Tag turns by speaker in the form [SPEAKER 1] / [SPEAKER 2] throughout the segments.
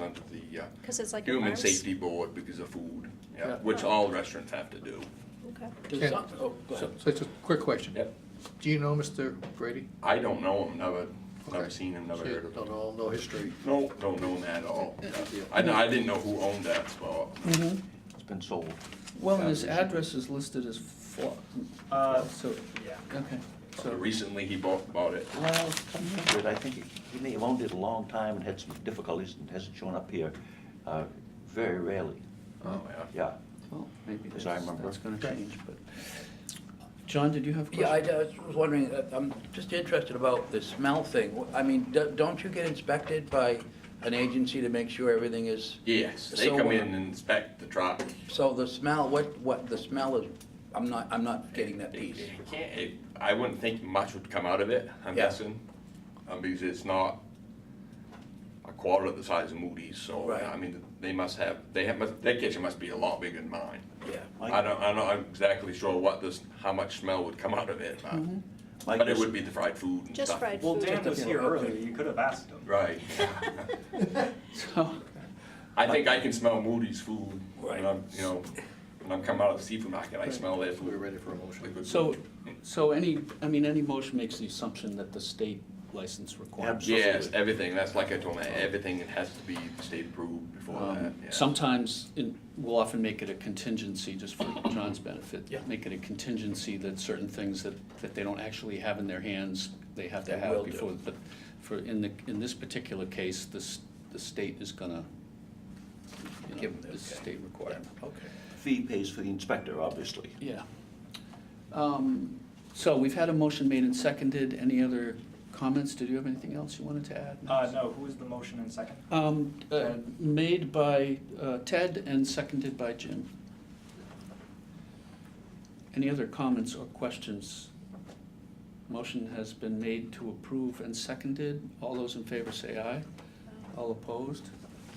[SPEAKER 1] onto the uh,
[SPEAKER 2] Because it's like. a
[SPEAKER 1] Human
[SPEAKER 2] virus.
[SPEAKER 1] Safety Board because of food, yeah,
[SPEAKER 3] Yeah.
[SPEAKER 1] which all restaurants have to do.
[SPEAKER 2] Okay.
[SPEAKER 3] Does-
[SPEAKER 4] Ken.
[SPEAKER 3] oh, go ahead.
[SPEAKER 4] So so it's a quick question.
[SPEAKER 3] Yep.
[SPEAKER 4] Do you know Mr. Brady?
[SPEAKER 1] I don't know him, never, never
[SPEAKER 4] Okay.
[SPEAKER 1] seen him, never
[SPEAKER 4] So you
[SPEAKER 1] heard of him.
[SPEAKER 4] Don't know, no history.
[SPEAKER 1] No, don't know him at all.
[SPEAKER 4] Yeah.
[SPEAKER 1] I, kn- I didn't know who owned that spot.
[SPEAKER 5] It's been sold.
[SPEAKER 3] Well, and his address is listed as Flo,
[SPEAKER 6] Uh,
[SPEAKER 3] so,
[SPEAKER 6] yeah.
[SPEAKER 3] okay,
[SPEAKER 1] So
[SPEAKER 3] so,
[SPEAKER 1] Recently, he bought, bought it.
[SPEAKER 3] well,
[SPEAKER 5] But I think he may have owned it a long time and had some difficulties and hasn't shown up here uh, very rarely.
[SPEAKER 1] Oh, yeah.
[SPEAKER 5] Yeah,
[SPEAKER 7] Well, maybe
[SPEAKER 5] As I
[SPEAKER 7] that's,
[SPEAKER 5] remember.
[SPEAKER 7] that's gonna change, but.
[SPEAKER 3] John, did you have a
[SPEAKER 8] Yeah, I
[SPEAKER 3] question?
[SPEAKER 8] I was wondering, uh, I'm just interested about the smell thing. I mean, do- don't you get inspected by an agency to make sure everything is,
[SPEAKER 1] Yes, they
[SPEAKER 8] So,
[SPEAKER 1] come
[SPEAKER 8] uh,
[SPEAKER 1] in and inspect the truck.
[SPEAKER 8] so the smell, what, what, the smell is, I'm not, I'm not getting that
[SPEAKER 1] It-
[SPEAKER 8] piece.
[SPEAKER 1] it can't- it- I wouldn't think much would come out of it, I'm
[SPEAKER 8] Yeah.
[SPEAKER 1] guessing, um, because it's not a quarter of the size of Moody's, so,
[SPEAKER 8] Right.
[SPEAKER 1] I mean, they must have, they have, must- their kitchen must be a lot bigger than mine.
[SPEAKER 8] Yeah.
[SPEAKER 5] Mike?
[SPEAKER 1] I don't, I'm not exactly sure what this, how much smell would come out of it, but,
[SPEAKER 5] Mike,
[SPEAKER 1] but it
[SPEAKER 5] this-
[SPEAKER 1] would be the fried food and stuff.
[SPEAKER 2] Just fried
[SPEAKER 6] Well,
[SPEAKER 2] food.
[SPEAKER 6] Dan was here earlier, you could have asked him.
[SPEAKER 1] Right.
[SPEAKER 3] So,
[SPEAKER 1] I think I can smell Moody's food
[SPEAKER 8] Right.
[SPEAKER 1] when I'm, you know, when I'm coming out of the seafood market, I smell their
[SPEAKER 4] We're
[SPEAKER 1] food.
[SPEAKER 4] ready for a motion.
[SPEAKER 1] liquid
[SPEAKER 3] so,
[SPEAKER 1] food.
[SPEAKER 3] so any, I mean, any motion makes the assumption that the state license requires.
[SPEAKER 5] Absolutely.
[SPEAKER 1] Yes, everything, that's like I told me, everything has to be state approved before that,
[SPEAKER 3] Um,
[SPEAKER 1] yeah.
[SPEAKER 3] Sometimes, in- we'll often make it a contingency, just for John's benefit.
[SPEAKER 8] Yeah.
[SPEAKER 3] Make it a contingency that certain things that, that they don't actually have in their hands, they have to
[SPEAKER 8] They
[SPEAKER 3] have
[SPEAKER 8] will
[SPEAKER 3] before.
[SPEAKER 8] do.
[SPEAKER 3] But for, in the, in this particular case, this, the state is gonna, you know,
[SPEAKER 8] Give them,
[SPEAKER 3] it's a
[SPEAKER 8] okay.
[SPEAKER 3] state requirement.
[SPEAKER 8] Okay.
[SPEAKER 5] Fee pays for the inspector, obviously.
[SPEAKER 3] Yeah. Um, So we've had a motion made and seconded. Any other comments? Did you have anything else you wanted to add?
[SPEAKER 6] Uh, no, who was the motion in second?
[SPEAKER 3] Um, uh, Made by uh, Ted and seconded by Jim. Any other comments or questions? Motion has been made to approve and seconded. All those in favor say aye. All opposed?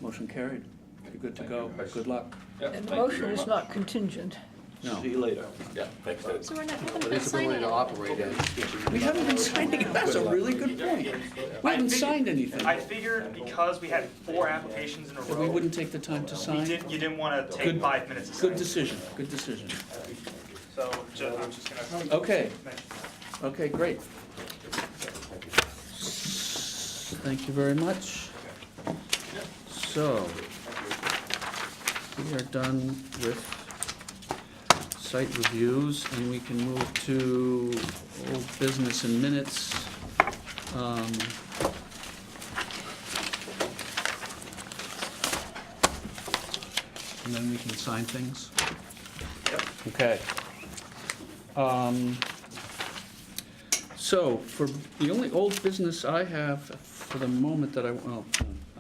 [SPEAKER 3] Motion carried. You're good to
[SPEAKER 1] Thank you,
[SPEAKER 3] go.
[SPEAKER 1] guys.
[SPEAKER 3] Good luck.
[SPEAKER 1] Yeah,
[SPEAKER 9] And
[SPEAKER 1] thank
[SPEAKER 9] the
[SPEAKER 1] you
[SPEAKER 9] motion
[SPEAKER 1] very
[SPEAKER 9] is
[SPEAKER 1] much.
[SPEAKER 9] not contingent.
[SPEAKER 3] No.
[SPEAKER 5] See you later.
[SPEAKER 1] Yeah, thanks, Ted.
[SPEAKER 2] So we're not having a
[SPEAKER 4] But
[SPEAKER 2] big
[SPEAKER 4] it's the way
[SPEAKER 2] signing.
[SPEAKER 4] to operate it.
[SPEAKER 3] We haven't been signing, it. that's a really good point. We haven't signed anything.
[SPEAKER 6] I figured because we had four applications in a
[SPEAKER 3] That we
[SPEAKER 6] row,
[SPEAKER 3] wouldn't take the time to
[SPEAKER 6] you
[SPEAKER 3] sign.
[SPEAKER 6] didn't, you didn't wanna
[SPEAKER 3] Good-
[SPEAKER 6] take five minutes to
[SPEAKER 3] Good
[SPEAKER 6] sign.
[SPEAKER 3] decision, good decision.
[SPEAKER 6] So, ju- I'm just gonna.
[SPEAKER 3] Okay.
[SPEAKER 6] mention that.
[SPEAKER 3] Okay, great. Thank you very much. So, we are done with site reviews, and we can move to old business in minutes. Um, And then we can sign things. Yep. Okay. Um, so, for, the only old business I have for the moment that I, well,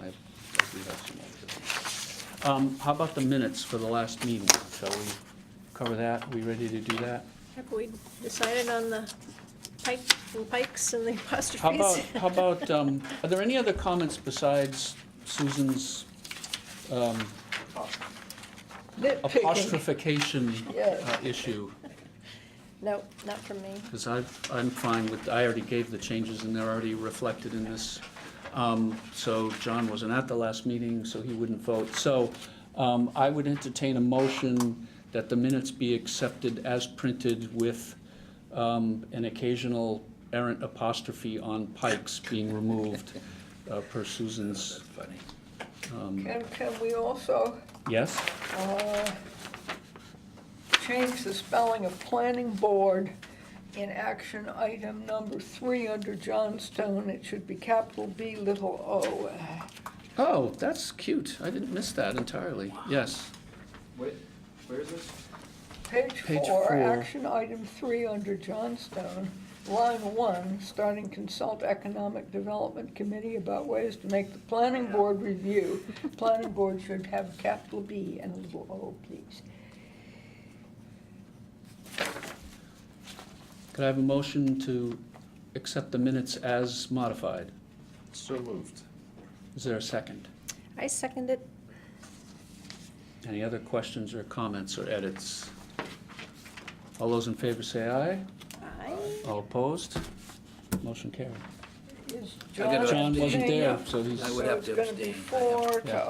[SPEAKER 3] I, I do have some old business. Um, how about the minutes for the last meeting? Shall we cover that? We ready to do that?
[SPEAKER 2] Have we decided on the pike, and pikes and the apostrophes?
[SPEAKER 3] How about, how about, um, are there any other comments besides Susan's, um,
[SPEAKER 9] Nitpicking.
[SPEAKER 3] apostrophication
[SPEAKER 9] Yeah.
[SPEAKER 3] uh, issue?
[SPEAKER 2] No, not from me.
[SPEAKER 3] Because I, I'm fine with, I already gave the changes and they're already reflected in this. Um, So John wasn't at the last meeting, so he wouldn't vote. So um, I would entertain a motion that the minutes be accepted as printed with um, an occasional errant apostrophe on Pikes being removed uh, per Susan's. um,
[SPEAKER 9] And can we also
[SPEAKER 3] Yes?
[SPEAKER 9] uh, change the spelling of planning board in action item number three under Johnstone? It should be capital B, little o.
[SPEAKER 3] Oh, that's cute. I didn't miss that entirely. Yes.
[SPEAKER 6] Wait, where is this?
[SPEAKER 9] Page
[SPEAKER 3] Page
[SPEAKER 9] four,
[SPEAKER 3] four.
[SPEAKER 9] action item three under Johnstone, line one, starting consult economic development committee about ways to make the planning board review. Planning board should have capital B and a little o, please.
[SPEAKER 3] Could I have a motion to accept the minutes as modified?
[SPEAKER 4] So moved.
[SPEAKER 3] Is there a second?
[SPEAKER 2] I second it.
[SPEAKER 3] Any other questions or comments or edits? All those in favor say aye.
[SPEAKER 2] I,
[SPEAKER 3] All opposed? Motion carried.
[SPEAKER 9] Is
[SPEAKER 8] I gotta
[SPEAKER 9] John
[SPEAKER 3] John wasn't
[SPEAKER 9] abstaining?
[SPEAKER 3] there, so he's.
[SPEAKER 8] I would
[SPEAKER 9] So
[SPEAKER 8] have
[SPEAKER 9] it's
[SPEAKER 8] to
[SPEAKER 9] gonna
[SPEAKER 8] abstain.
[SPEAKER 9] be
[SPEAKER 8] I have-
[SPEAKER 9] four to
[SPEAKER 3] Yeah.